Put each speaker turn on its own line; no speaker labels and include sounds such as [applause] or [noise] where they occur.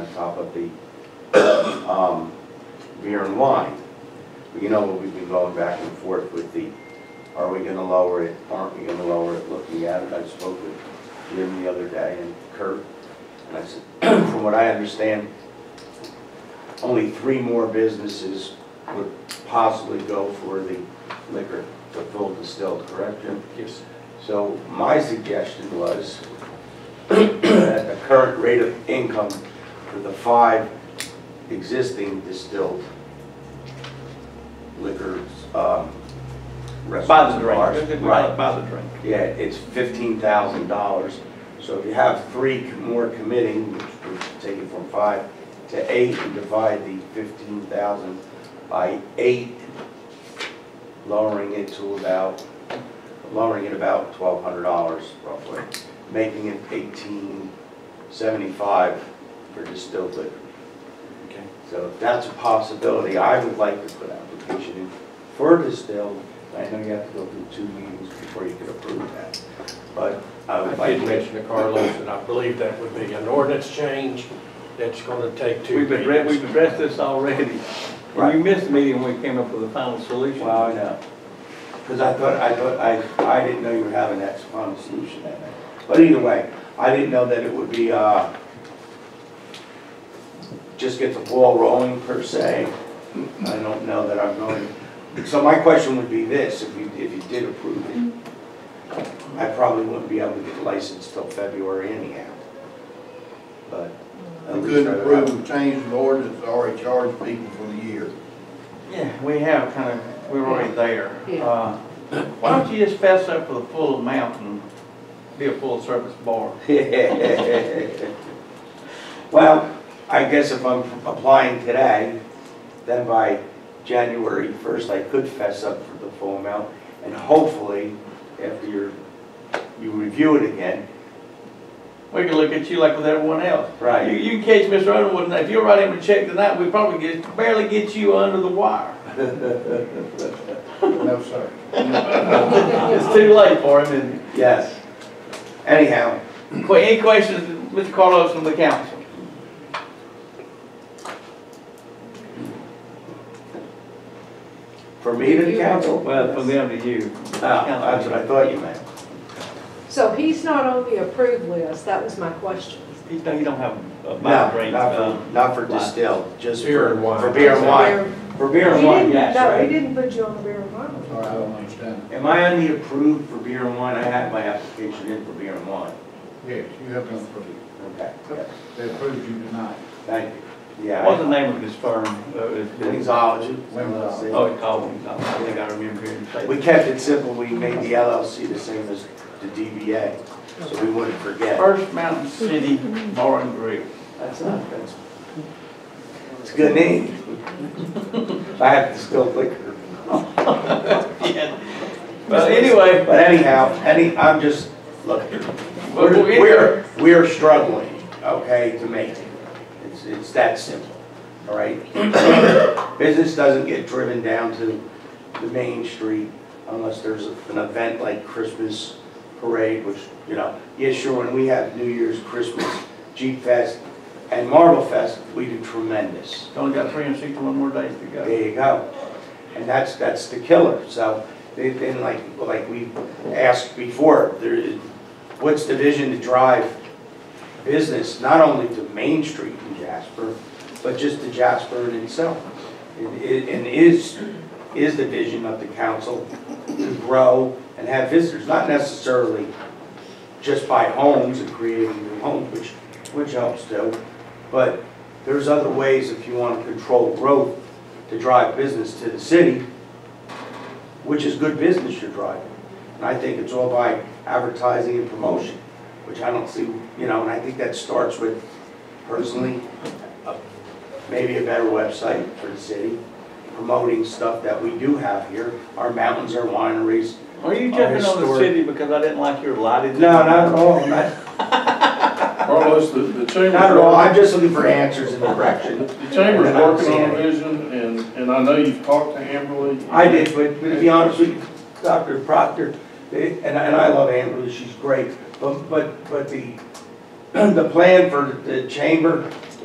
top of the [coughs] um, beer and wine. You know, we've been going back and forth with the, are we gonna lower it, aren't we gonna lower it, looking at it. I spoke with Jim the other day and Kurt, and I said, [clears throat] from what I understand, only three more businesses would possibly go for the liquor to full distilled, correct, Jim?
Yes.
So my suggestion was, [clears throat] at the current rate of income for the five existing distilled liquors, um, restaurants.
By the
and
drink,
bars.
by, by the drink.
Yeah, it's fifteen thousand dollars. So if you have three more committing, which would take it from five to eight, and divide the fifteen thousand by eight, lowering it to about, lowering it about twelve hundred dollars roughly, making it eighteen seventy-five for distilled liquor.
Okay.
So if that's a possibility, I would like to put application in for distilled. I know you have to go through two meetings before you can approve that, but I would
I
like
did
to.
mention to Carlos that I believe that would be an ordinance change that's going to take two
We've addressed,
meetings.
we've addressed this already. And
Right.
you missed the meeting when we came up with the final solution.
Well, I know, because I thought, I thought, I, I didn't know you were having that final solution that night. But either way, I didn't know that it would be, uh, just get the ball rolling per se. I don't know that I'm going, so my question would be this, if you, if you did approve it, I probably wouldn't be able to get licensed till February anyhow. But at
You
least I
couldn't
would have-
approve and change an ordinance that already charged people for the year.
Yeah, we have kind of, we're already there.
Yeah.
Uh, Why don't you just fess up for the full amount and be a full-service bar?
[laughs] Well, I guess if I'm applying today, then by January 1st, I could fess up for the full amount, and hopefully, after you're, you review it again,
We can look at you like with everyone else. You,
right?
you can catch Mr. Underwood, and if you write him a check tonight, we probably get, barely get you under the wire.
No, sir.
It's too late for him, and,
Yes. Anyhow,
Qu- any questions, Mr. Carlos from the council?
for me to the council?
Well, from them to you.
Oh, That's what I thought you meant.
So he's not on the approved list, that was my question.
He don't, he don't have uh, a mind
No,
range,
not
um,
for, not for
wine.
distilled, just
Beer
for,
and wine.
for beer and wine. For beer and
He
wine,
didn't-
yes,
No,
right?
he didn't put you on the beer and wine.
Sorry, I don't understand.
Am I only approved for beer and wine? I had my application in for beer and wine.
Yes, you have been approved.
Okay, yes.
They approved you tonight.
thank you. Yeah.
what's the
I-
name of his firm? Uh, it's-
Wingsology.
Wingsology.
Oh, it's called, Wings. I think I remember hearing you say.
Oh, We kept it simple. We made the LLC the same as the DBA, so we wouldn't forget.
First Mountain City Bar and
[laughs]
Grill.
That's not, that's, it's a good name. [laughs] I have to still liquor.
Yeah. But anyway,
But anyhow, any, I'm just, look,
Well,
we're,
we'll get
we're, we're struggling, okay, to make it. It's, it's that simple, all right? Business doesn't get driven down to the main street unless there's an event like Christmas parade, which, you know, yeah, sure, when we have New Year's, Christmas, Jeep Fest, and Marble Fest, we do tremendous.
it's only got three and sixty-one more days to go.
There you go. And that's, that's the killer. So they've been like, like we asked before, there is, what's the vision to drive business, not only to Main Street in Jasper, but just to Jasper in itself? And i- and is, is the vision of the council to grow and have visitors, not necessarily just by homes and creating new homes, which, which helps too. But there's other ways if you want to control growth to drive business to the city, which is good business you're driving. And I think it's all by advertising and promotion, which I don't see, you know, and I think that starts with personally, a- maybe a better website for the city, promoting stuff that we do have here, our mountains, our wineries.
Are you jumping on the
Historic.
city because I didn't like your lighted?
No, not at all, not,
Carlos, the, the chamber's.
not at all, I'm just looking for answers and direction.
The chamber's working on a vision, and, and I know you've talked to Amberly.
I did, but but to be honest with you, Dr. Proctor, eh, and I, and I love [clears throat] Amber, she's great, but, but, but the, the plan for the chamber